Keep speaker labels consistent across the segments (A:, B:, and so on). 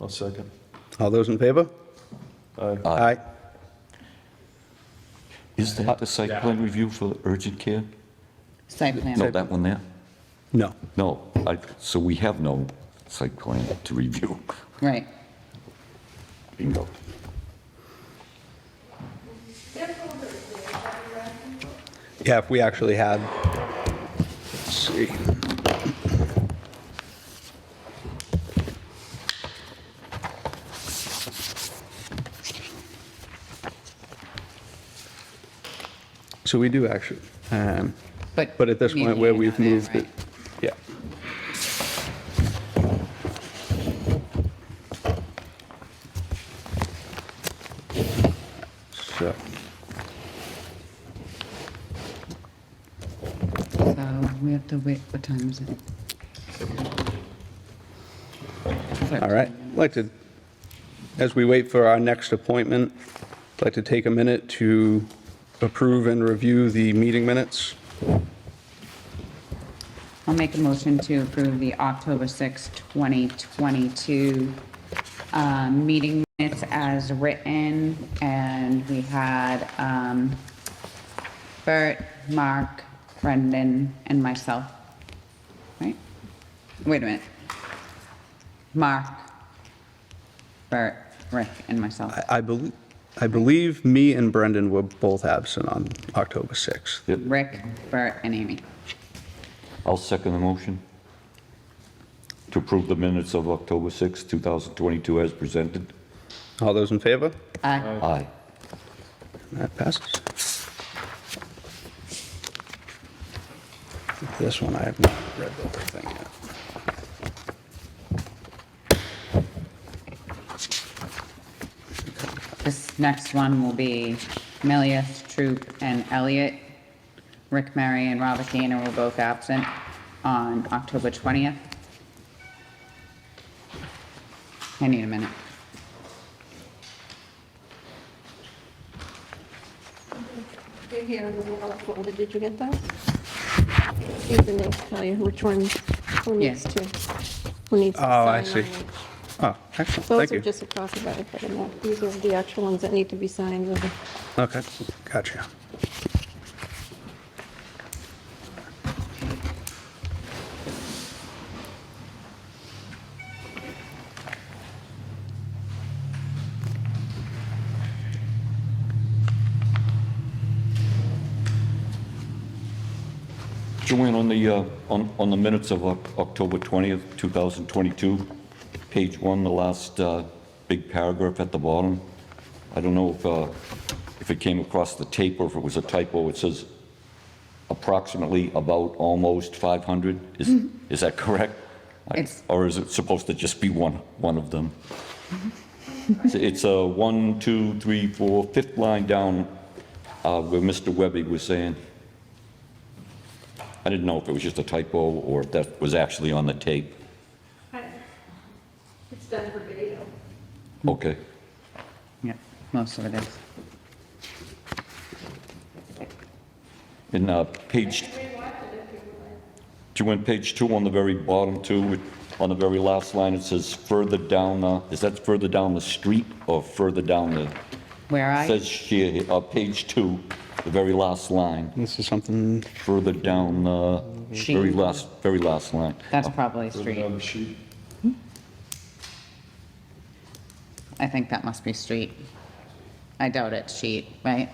A: I'll second.
B: All those in favor?
A: Aye.
B: Aye.
C: Is that the site plan review for urgent care?
D: Site plan.
C: No, that one there?
B: No.
C: No, I, so we have no site plan to review.
D: Right.
C: Bingo.
B: Yeah, if we actually had, let's see. So we do actually, um,
D: But.
B: but at this
D: we
B: point where
D: need
B: we've
D: another,
B: moved it,
D: right?
B: yeah. So,
D: So we have to wait, what time is it?
B: all right, I'd like to, as we wait for our next appointment, I'd like to take a minute to approve and review the meeting minutes.
D: I'll make a motion to approve the October 6, 2022 uh, meeting minutes as written. And we had um, Bert, Mark, Brendan, and myself. Right? Wait a minute. Mark, Bert, Rick, and myself.
B: I- I believe, I believe me and Brendan were both absent on October 6th.
D: Rick, Bert, and Amy.
C: I'll second the motion to approve the minutes of October 6, 2022 as presented.
B: All those in favor?
D: Aye.
C: Aye.
B: That passes. This one, I have not read the whole thing yet.
D: This next one will be Melius, Troop, and Elliot. Rick, Mary, and Robert Gainer were both absent on October 20th. I need a minute.
E: They're here in the yellow folder, did you get that? Ethan, they'll tell you which one, who needs
D: Yes.
E: to, who needs to sign
B: Oh, I
E: on
B: see.
E: it.
B: Oh, excellent, thank
E: Those are
B: you.
E: just across the back, but not- these are the actual ones that need to be signed. with the-
B: Okay, gotcha.
C: Joanne, on the, uh, on on the minutes of Oc- October 20th, 2022, page one, the last uh, big paragraph at the bottom, I don't know if, uh, if it came across the tape or if it was a typo, it says approximately, about, almost 500, is, is that correct? I-
D: It's-
C: Or is it supposed to just be one, one of them? It's- It's a one, two, three, four, fifth line down uh, where Mr. Webby was saying, I didn't know if it was just a typo or if that was actually on the tape.
E: It's done for video.
C: Okay.
D: Yep, most of it is.
C: In uh, page... Do you want page two on the very bottom too? On the very last line, it says further down, uh, is that further down the street or further down the...
D: Where I,
C: Says here, uh, page two, the very last line,
B: This is something,
C: further down, uh, very
D: Sheet.
C: last, very last line.
D: that's probably
A: Put it
B: Oh,
D: street.
A: on the sheet.
D: I think that must be street. I doubt it's sheet, right?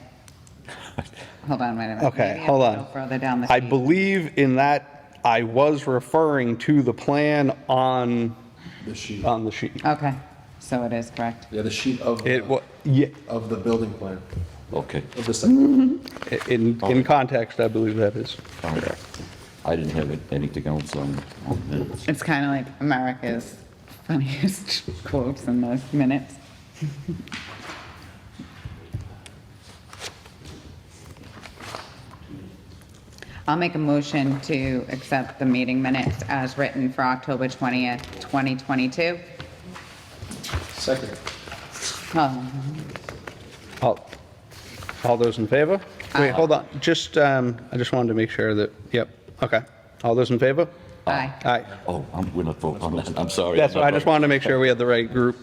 D: Hold on, wait a minute.
B: okay,
D: Maybe I
B: hold
D: have to
B: on.
D: go Further down the
B: I
D: sheet.
B: believe in that, I was referring to the plan on,
A: The sheet.
B: on the sheet.
D: Okay, so it is correct.
A: Yeah, the sheet of,
B: It,
A: the-
B: wa- yeah,
A: of the building plan,
C: Okay,
A: of the
B: Mm.
A: site.
B: in, in context, I believe that is.
C: all right. I didn't have anything else on on minutes.
D: It's kind of like America's funniest quotes in those minutes. I'll make a motion to accept the meeting minutes as written for October 20th, 2022.
A: Second.
D: Oh,
B: All, all those in favor? Wait, hold on, just, um, I just wanted to make sure that, yep, okay. All those in favor?
D: aye.
B: Aye.
C: Oh, I'm, we're not voting on that, I'm sorry.
B: That's,
C: I'm not
B: I just
C: voting.
B: wanted to make sure we had the right group.